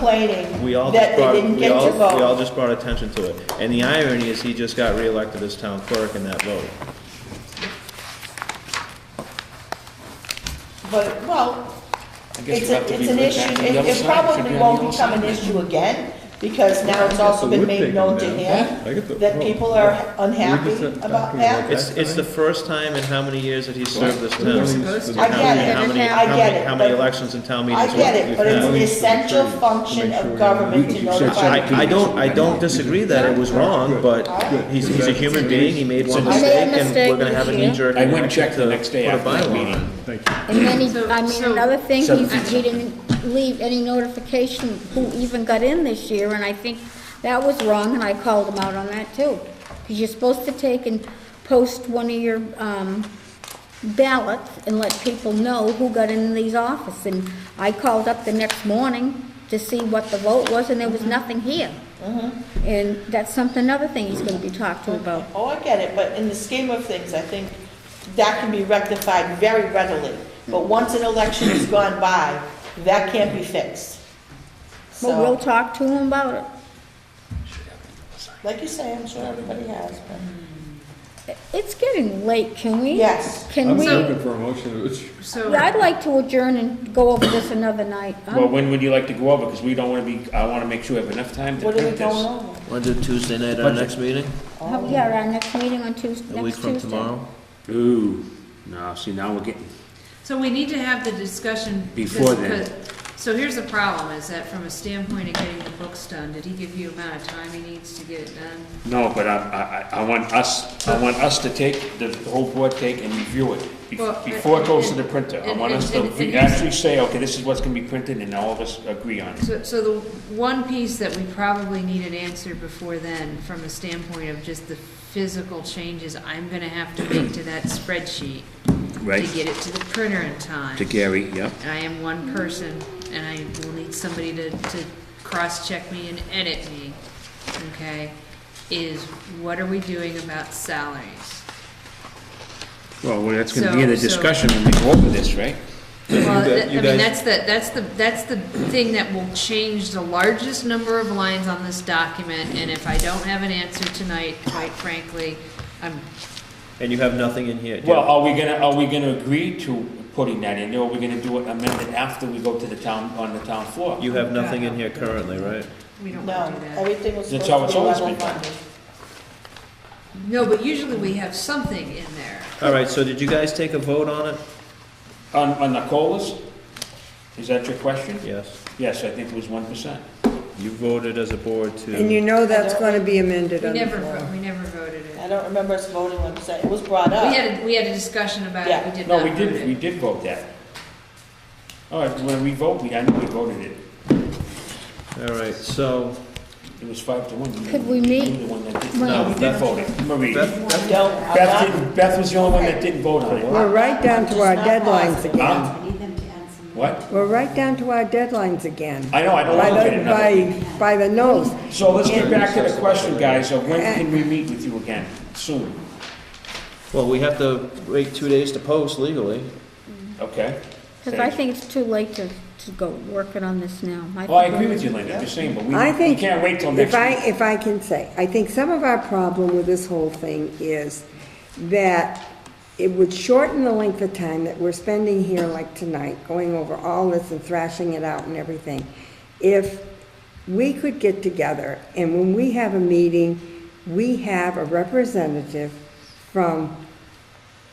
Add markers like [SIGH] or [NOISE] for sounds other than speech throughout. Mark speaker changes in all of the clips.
Speaker 1: complaining
Speaker 2: We all
Speaker 1: that
Speaker 2: just
Speaker 1: they
Speaker 2: brought,
Speaker 1: didn't
Speaker 2: we
Speaker 1: get
Speaker 2: all,
Speaker 1: to
Speaker 2: we all
Speaker 1: vote.
Speaker 2: just brought attention to it. And the irony is he just got reelected as town clerk in that vote.
Speaker 1: But, well,
Speaker 3: I
Speaker 1: it's,
Speaker 3: guess we'll
Speaker 1: a-
Speaker 3: have to
Speaker 1: it's
Speaker 3: be
Speaker 1: an
Speaker 3: with that
Speaker 1: issue,
Speaker 3: on
Speaker 1: it it
Speaker 3: the other side. It should
Speaker 1: probably
Speaker 3: be on the
Speaker 1: won't
Speaker 3: other
Speaker 1: become an
Speaker 3: side.
Speaker 1: issue again, because now it's also
Speaker 4: the
Speaker 1: been
Speaker 4: wood
Speaker 1: made
Speaker 4: picking
Speaker 1: known to
Speaker 4: down.
Speaker 1: him
Speaker 4: I get the-
Speaker 1: that
Speaker 4: well,
Speaker 1: people are unhappy
Speaker 4: just talking
Speaker 1: about
Speaker 4: about
Speaker 1: that.
Speaker 2: It's, it's the first time in how many years that he's served this town?
Speaker 4: Supposed
Speaker 2: And
Speaker 4: to.
Speaker 2: how many- how
Speaker 5: I get it.
Speaker 2: many-
Speaker 5: I
Speaker 2: how many-
Speaker 1: get it,
Speaker 2: How many
Speaker 1: but-
Speaker 2: elections and town meetings
Speaker 1: I
Speaker 2: we've
Speaker 1: get it, but it's
Speaker 2: had?
Speaker 1: an essential function of government to notify.
Speaker 2: I, I don't, I don't disagree that it was wrong, but he's, he's a human being, he made one
Speaker 5: I made a
Speaker 2: mistake, and
Speaker 5: mistake
Speaker 2: we're gonna have a
Speaker 5: this year.
Speaker 2: knee-jerk.
Speaker 3: I went and
Speaker 2: reaction
Speaker 3: checked the
Speaker 2: to
Speaker 3: next day
Speaker 2: put a
Speaker 3: after that
Speaker 2: bylaw on it.
Speaker 3: meeting.
Speaker 4: Thank you.
Speaker 5: And then he, I mean,
Speaker 6: so-
Speaker 5: another thing,
Speaker 3: So-
Speaker 5: he he didn't leave any notification who even got in this year, and I think that was wrong, and I called him out on that too. Because you're supposed to take and post one of your um, ballots and let people know who got in these office. And I called up the next morning to see what the vote was, and there was nothing here. And that's something, another thing he's gonna be talked to about.
Speaker 1: Oh, I get it, but in the scheme of things, I think that can be rectified very readily. But once an election has gone by, that can't be fixed.
Speaker 5: But we'll
Speaker 1: So,
Speaker 5: talk to him about it.
Speaker 1: like you say, I'm sure everybody has, but.
Speaker 5: It's getting late, can we?
Speaker 1: Yes.
Speaker 5: Can
Speaker 4: I'm
Speaker 5: we?
Speaker 4: looking for a motion, which,
Speaker 6: So,
Speaker 5: Yeah, I'd like to adjourn and go over this another night. Um, I'm-
Speaker 3: Well, when would you like to go over? Because we don't want to be, I want to make sure we have enough time to
Speaker 1: What are we
Speaker 3: print
Speaker 1: going
Speaker 3: this.
Speaker 1: over?
Speaker 2: Wanna do Tuesday night, our next meeting,
Speaker 5: how- Yeah, our next meeting on Tuesday,
Speaker 2: a week
Speaker 5: next
Speaker 2: from
Speaker 5: Tuesday.
Speaker 2: tomorrow?
Speaker 3: Ooh, no, see, now we're getting,
Speaker 6: so we need to have the discussion. because-
Speaker 3: Before then.
Speaker 6: because- So here's the problem, is that from a standpoint of getting the books done, did he give you amount of time he needs to get it done?
Speaker 3: no, but I, I, I want us, I want us to take, the the whole board take and review it bef-
Speaker 6: Well, uh,
Speaker 3: before it goes to the
Speaker 6: and-
Speaker 3: printer. I
Speaker 6: and-
Speaker 3: want us to
Speaker 6: and- and-
Speaker 3: actually say, okay, this is what's going to be printed and all of us agree on it.
Speaker 6: So, so the one piece that we probably need an answer before then, from a standpoint of just the physical changes I'm gonna have to make to that spreadsheet. To get it to the printer in time.
Speaker 3: Gary, yep.
Speaker 6: And I am one person, and I will need somebody to, to cross-check me and edit me, okay? Is what are we doing about salaries?
Speaker 3: Well, that's going to be in the
Speaker 6: So- so-
Speaker 3: discussion when we go over this, right?
Speaker 6: Well,
Speaker 4: gu-
Speaker 6: that- I
Speaker 4: you
Speaker 6: mean,
Speaker 4: guys-
Speaker 6: that's the, that's the, that's the thing that will change the largest number of lines on this document, and if I don't have an answer tonight, quite frankly, I'm,
Speaker 2: And you have nothing in here, do you?
Speaker 3: Well, are we gonna, are we gonna agree to putting that in there, or are we gonna do it amended after we go to the town, on the town floor?
Speaker 2: You have nothing in here currently, right?
Speaker 6: we don't
Speaker 1: No,
Speaker 6: wanna do that.
Speaker 1: everything was
Speaker 3: That's
Speaker 1: supposed
Speaker 3: how
Speaker 1: to
Speaker 3: it's
Speaker 1: be
Speaker 3: always
Speaker 1: level
Speaker 3: been done.
Speaker 1: funded.
Speaker 6: No, but usually we have something in there.
Speaker 2: All right, so did you guys take a vote on it?
Speaker 3: On, on the colas? Is that your question?
Speaker 2: Yes.
Speaker 3: Yes, I think it was one percent.
Speaker 2: You voted as a board
Speaker 7: And you
Speaker 2: to,
Speaker 7: know that's gonna be amended
Speaker 6: We
Speaker 7: on the
Speaker 6: never,
Speaker 7: floor.
Speaker 6: vo- we never voted it.
Speaker 1: I don't remember us voting on it, it was brought
Speaker 6: We
Speaker 1: up.
Speaker 6: had, a- we had a discussion about it,
Speaker 1: Yeah.
Speaker 6: we did not
Speaker 3: No,
Speaker 6: vote
Speaker 3: we did, we
Speaker 6: it.
Speaker 3: did vote that. All right, when we vote, we, I know we voted it.
Speaker 2: all right, so,
Speaker 3: It was five to one. You-
Speaker 5: Could we
Speaker 3: you
Speaker 5: meet?
Speaker 3: were the one that did-
Speaker 5: No,
Speaker 3: No, we did
Speaker 2: Beth-
Speaker 3: vote it, Marie.
Speaker 2: Beth,
Speaker 1: I don't, I'm
Speaker 3: Beth
Speaker 1: not,
Speaker 3: didn't, Beth was the only one that didn't vote on it.
Speaker 7: We're right down to our deadlines again.
Speaker 3: Huh? What?
Speaker 7: We're right down to our deadlines again.
Speaker 3: I know, I don't
Speaker 7: By
Speaker 3: wanna look at it
Speaker 7: the,
Speaker 3: another.
Speaker 7: by, by the nose.
Speaker 3: So let's get back to the question, guys, of when can we meet with you again? Soon,
Speaker 2: well, we have to wait two days to post legally.
Speaker 3: okay?
Speaker 5: Because I think it's too late to, to go working on this now.
Speaker 3: Well, I
Speaker 5: think
Speaker 3: agree with you, Linda, I'm just saying, but we,
Speaker 7: I
Speaker 3: we
Speaker 7: think.
Speaker 3: can't wait till next
Speaker 7: If I,
Speaker 3: week.
Speaker 7: if I can say, I think some of our problem with this whole thing is that it would shorten the length of time that we're spending here like tonight, going over all this and thrashing it out and everything. If we could get together and when we have a meeting, we have a representative from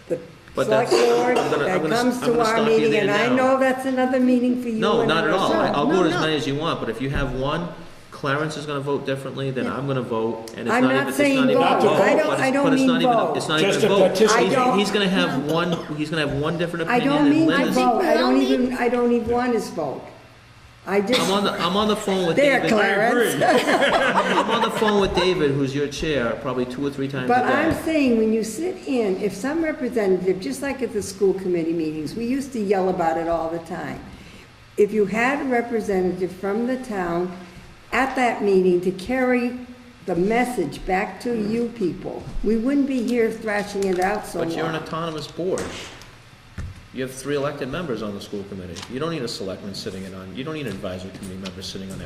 Speaker 7: the
Speaker 2: But
Speaker 7: select
Speaker 2: that's-
Speaker 7: board
Speaker 2: I'm gonna- I'm
Speaker 7: that
Speaker 2: gonna-
Speaker 7: comes
Speaker 2: I'm
Speaker 7: to
Speaker 2: gonna
Speaker 7: our
Speaker 2: stop you
Speaker 7: meeting,
Speaker 2: there
Speaker 7: and I
Speaker 2: now.
Speaker 7: know that's another meeting for you.
Speaker 2: No,
Speaker 7: and
Speaker 2: not at all, I- I'll
Speaker 5: No,
Speaker 2: vote as
Speaker 5: no.
Speaker 2: many as you want, but if you have one, Clarence is gonna vote differently, then I'm gonna vote, and it's not
Speaker 7: I'm
Speaker 2: even,
Speaker 7: not
Speaker 2: it's not
Speaker 7: saying
Speaker 2: even a vote.
Speaker 3: vote. I
Speaker 2: but
Speaker 7: don't-
Speaker 2: it's-
Speaker 7: I don't
Speaker 2: but it's
Speaker 7: mean
Speaker 2: not even a-
Speaker 7: vote.
Speaker 2: It's not even
Speaker 3: Just
Speaker 2: a
Speaker 3: to
Speaker 2: vote,
Speaker 3: participate.
Speaker 2: He's-
Speaker 7: I don't-
Speaker 2: he's gonna have one, he's gonna have one different
Speaker 7: I
Speaker 2: opinion
Speaker 7: don't
Speaker 2: than
Speaker 7: mean
Speaker 2: Linda's.
Speaker 7: to vote, I don't
Speaker 5: Linda's-
Speaker 7: even, I don't even want his vote. I
Speaker 2: I'm
Speaker 7: just,
Speaker 2: on the, I'm on the phone with
Speaker 7: there,
Speaker 2: David.
Speaker 7: Clarence.
Speaker 2: [LAUGHS] I'm on the phone with David, who's your chair, probably two or three times a
Speaker 7: But I'm
Speaker 2: day.
Speaker 7: saying, when you sit in, if some representative, just like at the school committee meetings, we used to yell about it all the time. If you had a representative from the town at that meeting to carry the message back to you people, we wouldn't be here thrashing it out so long.
Speaker 2: But you're an autonomous board. You have three elected members on the school committee. You don't need a selectman sitting in on, you don't need an advisory committee member sitting on that.